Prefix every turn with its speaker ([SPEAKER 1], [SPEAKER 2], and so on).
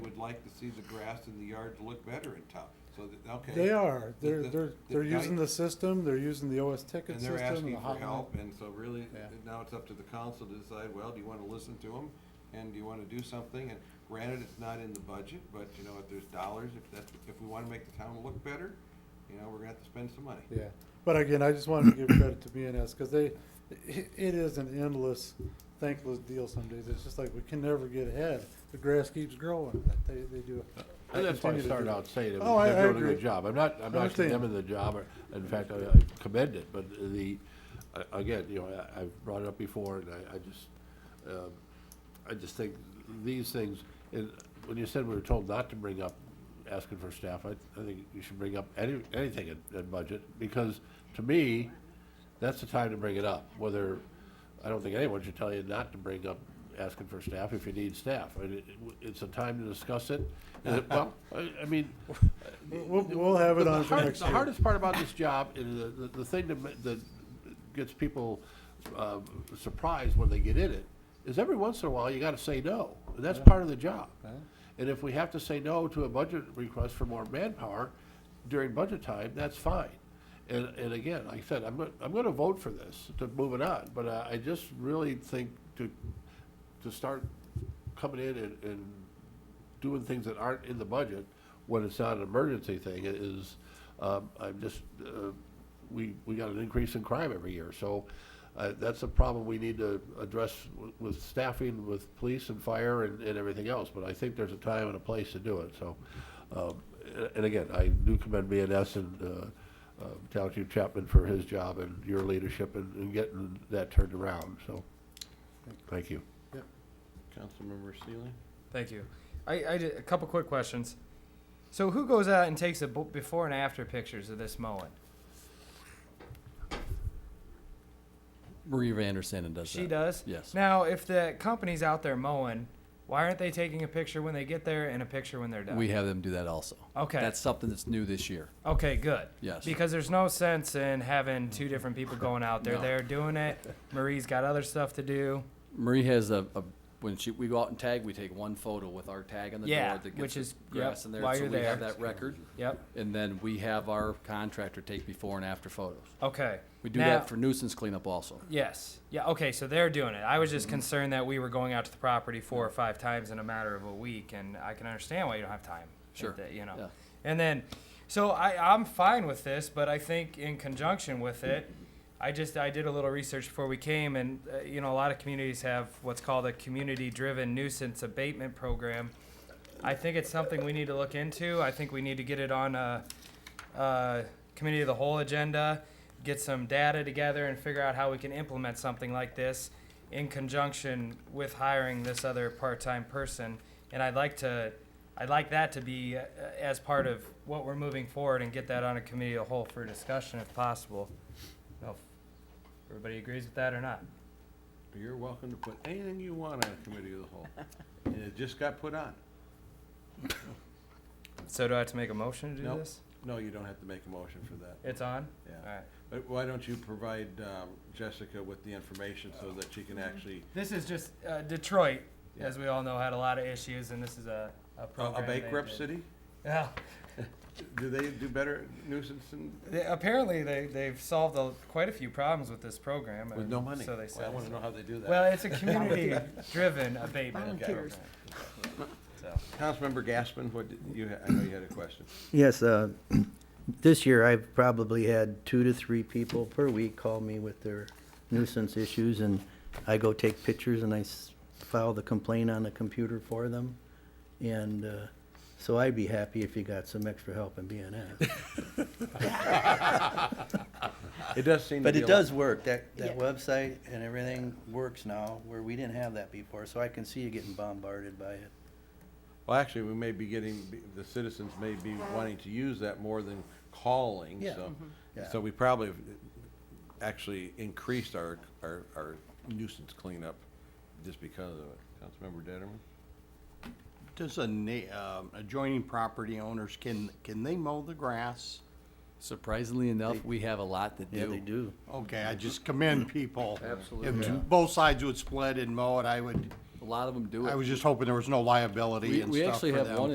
[SPEAKER 1] like to see the grass in the yards look better in town, so that, okay.
[SPEAKER 2] They are,
[SPEAKER 1] The-
[SPEAKER 2] they're,
[SPEAKER 1] the-
[SPEAKER 2] they're,
[SPEAKER 1] the
[SPEAKER 2] they're
[SPEAKER 1] guy-
[SPEAKER 2] using the system, they're using the OS ticket
[SPEAKER 1] And
[SPEAKER 2] system.
[SPEAKER 1] they're asking
[SPEAKER 2] the
[SPEAKER 1] for
[SPEAKER 2] hotline.
[SPEAKER 1] help, and so really,
[SPEAKER 2] Yeah.
[SPEAKER 1] now it's up to the council to decide, well, do you wanna listen to them? And do you wanna do something? And granted, it's not in the budget, but you know, if there's dollars, if that's, if we wanna make the town look better, you know, we're gonna have to spend some money.
[SPEAKER 2] Yeah, but again, I just wanted to give credit to BNS, because they, i it is an endless, thankless deal some days. It's just like, we can never get ahead. The grass keeps growing, but they, they do.
[SPEAKER 3] And that's why I
[SPEAKER 2] continue to
[SPEAKER 3] started
[SPEAKER 2] do it.
[SPEAKER 3] out saying that
[SPEAKER 2] Oh, I- I
[SPEAKER 3] they're doing a
[SPEAKER 2] agree.
[SPEAKER 3] good job. I'm not, I'm not
[SPEAKER 2] Understand.
[SPEAKER 3] condemning the job, or, in fact, I I commend it, but the, a- again, you know, I, I've brought it up before, and I, I just, um, I just think these things, and when you said we were told not to bring up asking for staff, I, I think you should bring up any, anything in, in budget, because to me, that's the time to bring it up, whether, I don't think anyone should tell you not to bring up asking for staff if you need staff. I mean, it- It's a time to discuss it, and it- well, I, I mean.
[SPEAKER 2] We'll, we'll have it
[SPEAKER 3] the
[SPEAKER 2] on for
[SPEAKER 3] hard-
[SPEAKER 2] next
[SPEAKER 3] The
[SPEAKER 2] year.
[SPEAKER 3] hardest part about this job is the, the, the thing that, ma- that gets people, um, surprised when they get in it, is every once in a while, you gotta say no, and that's part of the job.
[SPEAKER 2] Right.
[SPEAKER 3] And if we have to say no to a budget request for more manpower during budget time, that's fine. And, and again, like I said, I'm, go- I'm gonna vote for this, to move it on, but I, I just really think to, to start coming in and, and doing things that aren't in the budget when it's not an emergency thing i- is, um, I'm just, uh, we, we got an increase in crime every year, so, uh, that's a problem we need to address wi- with staffing, with police and fire and, and everything else, but I think there's a time and a place to do it, so. Um, a- and again, I do commend BNS and, uh, uh, Township Chapman for his job and your leadership in, in getting that turned around, so, thank you.
[SPEAKER 4] Councilmember Seeley?
[SPEAKER 5] Thank you. I, I did a couple quick questions. So who goes out and takes the b- before and after pictures of this mowing?
[SPEAKER 6] Marie Van Der Sanden does
[SPEAKER 5] She
[SPEAKER 6] that.
[SPEAKER 5] does.
[SPEAKER 6] Yes.
[SPEAKER 5] Now, if the company's out there mowing, why aren't they taking a picture when they get there and a picture when they're done?
[SPEAKER 6] We have them do that also.
[SPEAKER 5] Okay.
[SPEAKER 6] That's something that's new this year.
[SPEAKER 5] okay, good.
[SPEAKER 6] Yes.
[SPEAKER 5] Because there's no sense in having two different people going out there.
[SPEAKER 6] No.
[SPEAKER 5] They're doing it. Marie's got other stuff to do.
[SPEAKER 6] Marie has a, a when she we go out and tag, we take one photo with our tag on the
[SPEAKER 5] Yeah,
[SPEAKER 6] door that gets
[SPEAKER 5] which
[SPEAKER 6] the
[SPEAKER 5] is- yep,
[SPEAKER 6] grass in there,
[SPEAKER 5] while
[SPEAKER 6] so
[SPEAKER 5] you're
[SPEAKER 6] we have
[SPEAKER 5] there.
[SPEAKER 6] that record.
[SPEAKER 5] Yep.
[SPEAKER 6] And then we have our contractor take before and after photos.
[SPEAKER 5] Okay.
[SPEAKER 6] We do
[SPEAKER 5] Now-
[SPEAKER 6] that for nuisance cleanup also.
[SPEAKER 5] Yes. Yeah. Okay. So they're doing it. I was
[SPEAKER 6] Mm-hmm.
[SPEAKER 5] just concerned that we were going out to the property four or five times in a matter of a week, and I can understand why you don't have time. if
[SPEAKER 6] Sure.
[SPEAKER 5] that- you know.
[SPEAKER 6] Yeah.
[SPEAKER 5] And then, so I I'm fine with this, but I think in conjunction with it, I just I did a little research before we came, and uh, you know a lot of communities have what's called a community-driven nuisance abatement program. I think it's something we need to look into. I think we need to get it on a, uh committee of the whole agenda, get some data together and figure out how we can implement something like this in conjunction with hiring this other part-time person. And I'd like to, I'd like that to be uh, as part of what we're moving forward and get that on a committee of the whole for discussion if possible. I don't know if Everybody agrees with that or not?
[SPEAKER 1] You're welcome to put anything you want on a committee of the whole, and it just got put on.
[SPEAKER 5] So do I have to make a motion to do
[SPEAKER 1] Nope.
[SPEAKER 5] this?
[SPEAKER 1] No, you don't have to make a motion for that,
[SPEAKER 5] It's on?
[SPEAKER 1] yeah.
[SPEAKER 5] Alright.
[SPEAKER 1] But Uh, why don't you provide um, Jessica with the information so that she can
[SPEAKER 5] Mm-hmm.
[SPEAKER 1] actually,
[SPEAKER 5] This is just, uh, Detroit, as we all know, had a lot of issues and this is a, a
[SPEAKER 1] a- a
[SPEAKER 5] program. they
[SPEAKER 1] bankrupt
[SPEAKER 5] did.
[SPEAKER 1] city?
[SPEAKER 5] Yeah.
[SPEAKER 1] Do they do better nuisance than?
[SPEAKER 5] They, apparently, they they've solved a, quite a few problems with this program.
[SPEAKER 1] With
[SPEAKER 5] and
[SPEAKER 1] no money?
[SPEAKER 5] So they
[SPEAKER 1] Well, I
[SPEAKER 5] said.
[SPEAKER 1] wanna know how they do that.
[SPEAKER 5] Well, it's a community-driven abatement.
[SPEAKER 1] Volunteers.
[SPEAKER 5] program. So.
[SPEAKER 1] Councilmember Gaspin, what, did you, ha- I know you had a question.
[SPEAKER 7] Yes, uh, this year I've probably had two to three people per week call me with their nuisance issues, and I go take pictures and I s- file the complaint on the computer for them. And uh, so I'd be happy if you got some extra help in BNS.
[SPEAKER 1] It does seem to
[SPEAKER 7] But
[SPEAKER 1] be.
[SPEAKER 7] it
[SPEAKER 1] a lot-
[SPEAKER 7] does work, that, that website and everything works now, where we didn't have that before, so I can see you getting bombarded by it.
[SPEAKER 1] Well, actually, we may be getting, the citizens may be wanting to use that more than calling,
[SPEAKER 7] Yeah.
[SPEAKER 5] Mm-hmm.
[SPEAKER 1] so.
[SPEAKER 7] Yeah.
[SPEAKER 1] So we probably have actually increased our, our, our nuisance cleanup just because of it. Councilmember Detterman?
[SPEAKER 4] Does a na- um, adjoining property owners, can, can they mow the grass?
[SPEAKER 6] Surprisingly enough, we have a lot that do.
[SPEAKER 7] Yeah, they do.
[SPEAKER 4] Okay, I just commend people.
[SPEAKER 1] Absolutely.
[SPEAKER 4] If both sides would split and mow it, I would,
[SPEAKER 6] A lot of them do it.
[SPEAKER 4] I was just hoping there was no liability
[SPEAKER 6] We-
[SPEAKER 4] and
[SPEAKER 6] we
[SPEAKER 4] stuff
[SPEAKER 6] actually
[SPEAKER 4] for
[SPEAKER 6] have
[SPEAKER 4] them.
[SPEAKER 6] one